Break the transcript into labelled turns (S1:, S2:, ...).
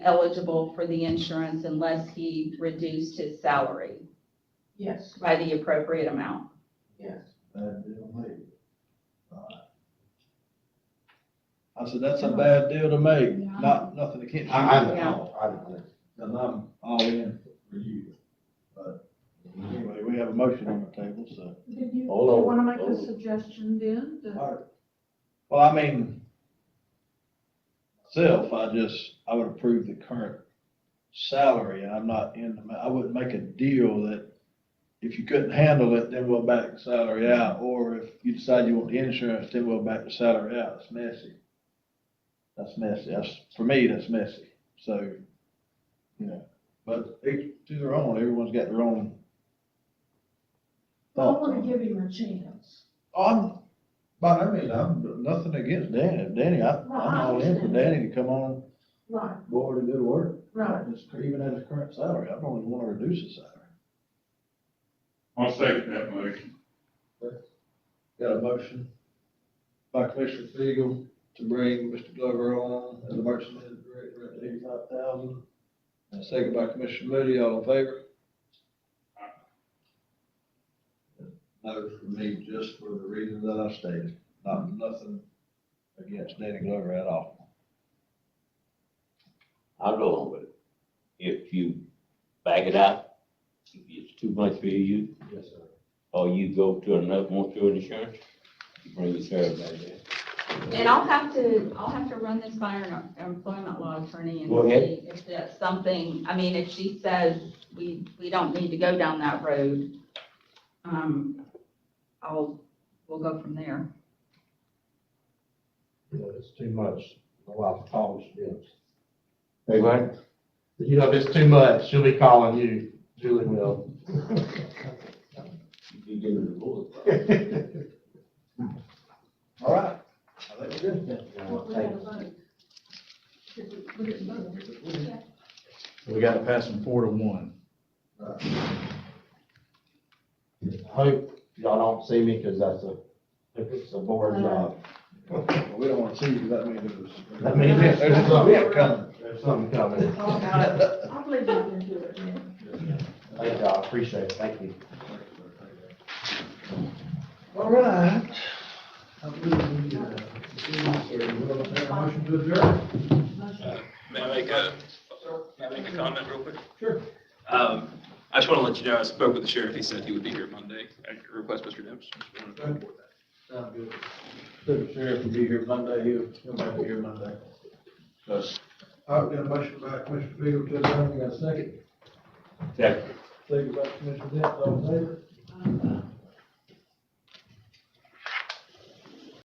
S1: eligible for the insurance unless he reduced his salary
S2: Yes,
S1: by the appropriate amount.
S2: yes.
S3: Bad deal, mate. Alright. I said, that's a bad deal to make, not, nothing against you.
S4: I, I don't
S1: Yeah.
S4: know, I don't know.
S3: And I'm all in for you, but anyway, we have a motion on the table, so.
S2: Did you, do you
S4: Hold on,
S2: want to make
S4: hold
S2: a
S4: on.
S2: suggestion then? to-
S3: Alright. Well, I mean, myself, I just, I would approve the current salary, and I'm not in the, ma- I wouldn't make a deal that if you couldn't handle it, then we'll back the salary out, or if you decide you want the insurance, then we'll back the salary out, it's messy. That's messy, that's, for me, that's messy, so, you know, but each to their own, everyone's got their own
S2: I
S4: Uh,
S3: thoughts.
S2: want
S3: on it.
S2: to give him a chance.
S3: I'm, by no means, I'm nothing against Danny, Danny, I, I'm all in for Danny to come on
S2: Right,
S3: board and do the work.
S2: right.
S3: Just Even at his current salary, I don't even wanna reduce his salary.
S5: I'll second that motion.
S3: Got a motion by Commissioner Fegel to bring Mr. Glover on as a merchant director at eighty-five thousand. And a second by Commissioner Moody, all in favor? No, for me, just for the reasons that I stated, not nothing against Danny Glover at all.
S4: I'll go along with it. If you back it out, if it's too much for you,
S3: Yes, sir.
S4: or you go to another, want your insurance, you bring your service back there.
S1: And I'll have to, I'll have to run this by our employment law attorney and
S4: Go ahead.
S1: see if that's something, I mean, if she says we, we don't need to go down that road, um, I'll, we'll go from there.
S6: you know, it's too much, a lot of calls, yes.
S4: Hey, what?
S6: You know, if it's too much, she'll be calling you, Julie will.
S4: You give it a bullet.
S3: All right. I think we're good.
S2: What we had to vote. Did we- we didn't vote.
S7: We got to pass them four to one.
S6: I Hope y'all don't see me, cause that's a, if it's a board
S2: Uh,
S6: job,
S3: Well, We don't wanna see you, that means it was.
S6: That means it's-
S3: There's a bit coming.
S6: there's something coming.
S2: All about it. I believe you can do it, man.
S6: Thank y'all, appreciate it, thank you.
S3: All right. I believe we, uh, we'll have a motion to adjourn.
S8: May I make a, may I make a comment real quick?
S3: Sure.
S8: Um, I just want to let you know, I spoke with the sheriff, he said he would be here Monday, at your request, Mr. Dempsey.
S3: Sound good. The sheriff will be here Monday, he'll, he'll be here Monday. Yes. All right, we got a motion by Commissioner Beal to adjourn, we got a second.
S4: Second.
S2: Uh,
S3: Second by Commissioner Dent, all in favor?